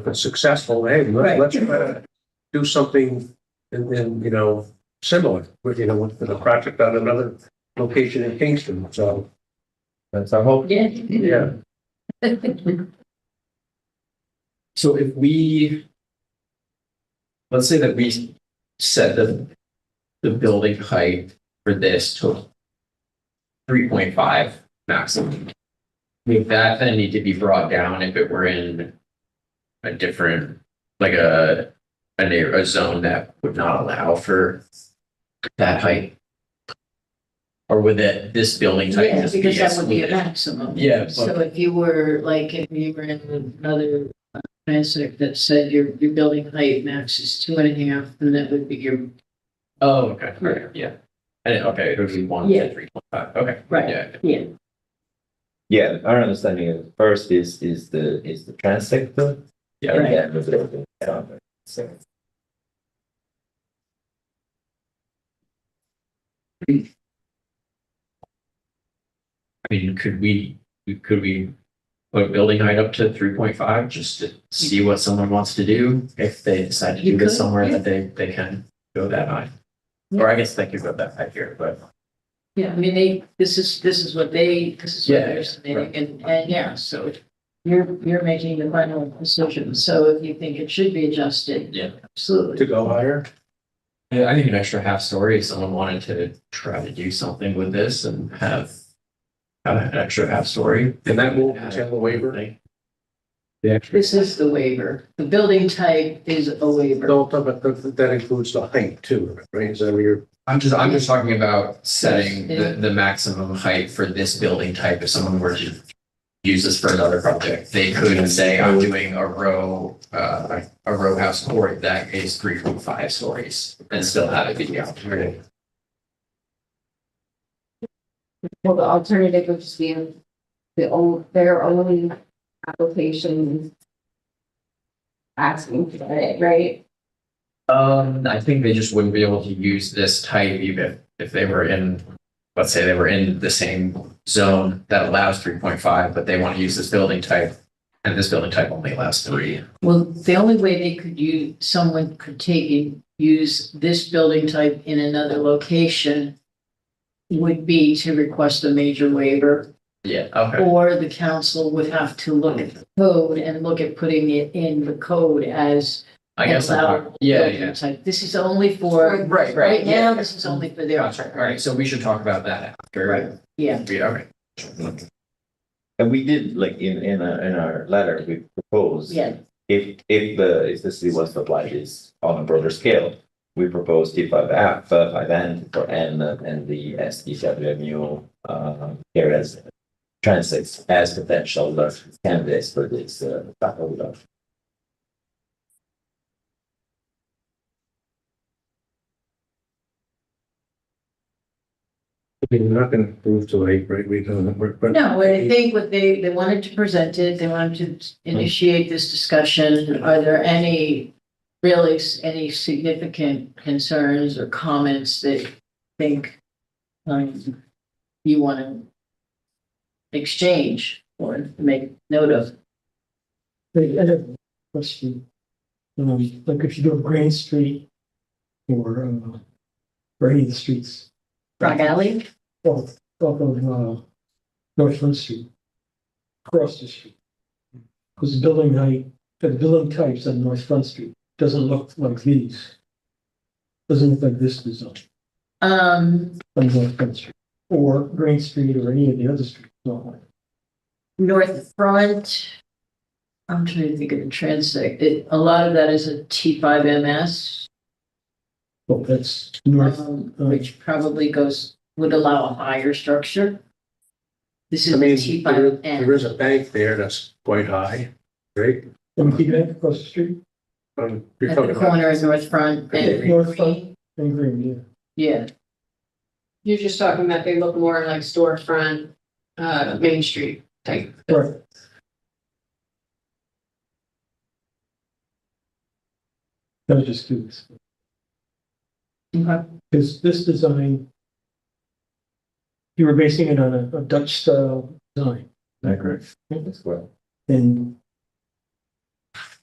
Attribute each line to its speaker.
Speaker 1: if it's successful, hey,
Speaker 2: Right.
Speaker 1: let's, let's uh, do something and then, you know, similar, with, you know, with the project on another location in Kingston, so,
Speaker 3: That's our hope.
Speaker 2: Yeah.
Speaker 1: yeah.
Speaker 3: So if we. Let's say that we set the, the building height for this to. Three point five maximum. Would that then need to be brought down if it were in. A different, like a, a neigh- a zone that would not allow for. That height? Or would that, this building type
Speaker 2: Yeah,
Speaker 3: just be
Speaker 2: because that would be a
Speaker 3: excluded?
Speaker 2: maximum.
Speaker 3: Yeah, but-
Speaker 2: So if you were, like, if you were in another uh, transect that said your, your building height max is two and a half, then that would be your,
Speaker 3: Oh, okay, all right, yeah. And, okay, it would be one
Speaker 2: Yeah.
Speaker 3: to three point five, okay,
Speaker 2: right,
Speaker 3: yeah.
Speaker 2: yeah.
Speaker 4: Yeah, our understanding is first is, is the, is the trans sector.
Speaker 3: Yeah.
Speaker 4: And then the building. cover. So,
Speaker 3: I mean, could we, could we put building height up to three point five just to see what someone wants to do? If they decide to
Speaker 2: You
Speaker 3: do this
Speaker 2: could,
Speaker 3: somewhere
Speaker 2: yeah.
Speaker 3: that they, they can go that high. Or I guess they could go that high here, but
Speaker 2: Yeah, I mean, they, this is, this is what they, this is what
Speaker 3: Yeah,
Speaker 2: they're
Speaker 3: yeah,
Speaker 2: submitting, and, and yeah, so you're, you're making the final decision, so if you think it should be adjusted.
Speaker 3: Yeah.
Speaker 1: To
Speaker 2: Absolutely.
Speaker 1: go higher,
Speaker 3: yeah, I think an extra half story, if someone wanted to try to do something with this and have have an extra half story.
Speaker 1: and that will, is that a waiver?
Speaker 3: The extra,
Speaker 2: This is the waiver. The building type is a waiver.
Speaker 1: No, but that that includes the height too, right, is that what you're,
Speaker 3: I'm just, I'm just talking about setting the, the maximum height for this building type. If someone were to use this for another project, they could say, I'm doing a row, uh, a row house story that is three point five stories and still have it be the opportunity.
Speaker 5: Well, the alternative would just be the old, their own applications. Asking for it, right?
Speaker 3: Um, I think they just wouldn't be able to use this type even if they were in, let's say they were in the same zone that allows three point five, but they want to use this building type. And this building type only allows three.
Speaker 2: Well, the only way they could use, someone could take and use this building type in another location would be to request a major waiver,
Speaker 3: Yeah, okay.
Speaker 2: or the council would have to look at the code and look at putting it in the code as
Speaker 3: I guess, I'm
Speaker 2: allowable
Speaker 3: talk- yeah, yeah.
Speaker 2: building type. This is only for,
Speaker 3: Right,
Speaker 2: right
Speaker 3: right,
Speaker 2: now,
Speaker 3: yeah.
Speaker 2: this is only for their.
Speaker 3: Gotcha, all right, so we should talk about that after.
Speaker 2: Right. Yeah,
Speaker 3: Yeah, all right.
Speaker 4: And we did, like, in, in our, in our letter, we proposed.
Speaker 2: yeah,
Speaker 4: If, if the, if the city was to apply this on a broader scale, we proposed T five alpha, five N for N and the S D W mu. Uh, here as transits as potential uh, candidates for this, uh, faculty of
Speaker 1: I mean, we're not gonna prove to eight, right, we don't, we're. but-
Speaker 2: No, I think what they, they wanted to present it, they wanted to initiate this discussion. Are there any, really, s- any significant concerns or comments that you think um, you want to exchange or make note of?
Speaker 6: They I have a question. Um, like if you go to Grand Street or, uh, or any of the streets,
Speaker 2: Rock Alley?
Speaker 6: off, off of, uh, North Front Street, across the street. Because the building height, the building types on North Front Street doesn't look like these. Doesn't look like this design
Speaker 2: Um,
Speaker 6: on North Front Street or Grand Street or any of the other streets. not like-
Speaker 2: North Front. I'm trying to think of the transect. It, a lot of that is a T five MS.
Speaker 6: Well, that's north, uh,
Speaker 2: um, which probably goes, would allow a higher structure. This
Speaker 1: I
Speaker 2: is a
Speaker 1: mean,
Speaker 2: T
Speaker 1: there,
Speaker 2: five
Speaker 1: there
Speaker 2: N.
Speaker 1: is a bank there that's quite high, right?
Speaker 6: empty bank across the street
Speaker 1: Um, you're
Speaker 2: At the
Speaker 1: talking about-
Speaker 2: corner of North Front and
Speaker 6: North Front.
Speaker 2: Green,
Speaker 6: and green, yeah.
Speaker 2: yeah.
Speaker 7: You're just talking that they look more like storefront, uh, Main Street type.
Speaker 6: Right. I was just curious,
Speaker 2: Okay.
Speaker 6: because this design, you were basing it on a a Dutch style design
Speaker 4: Agri. as well.
Speaker 6: and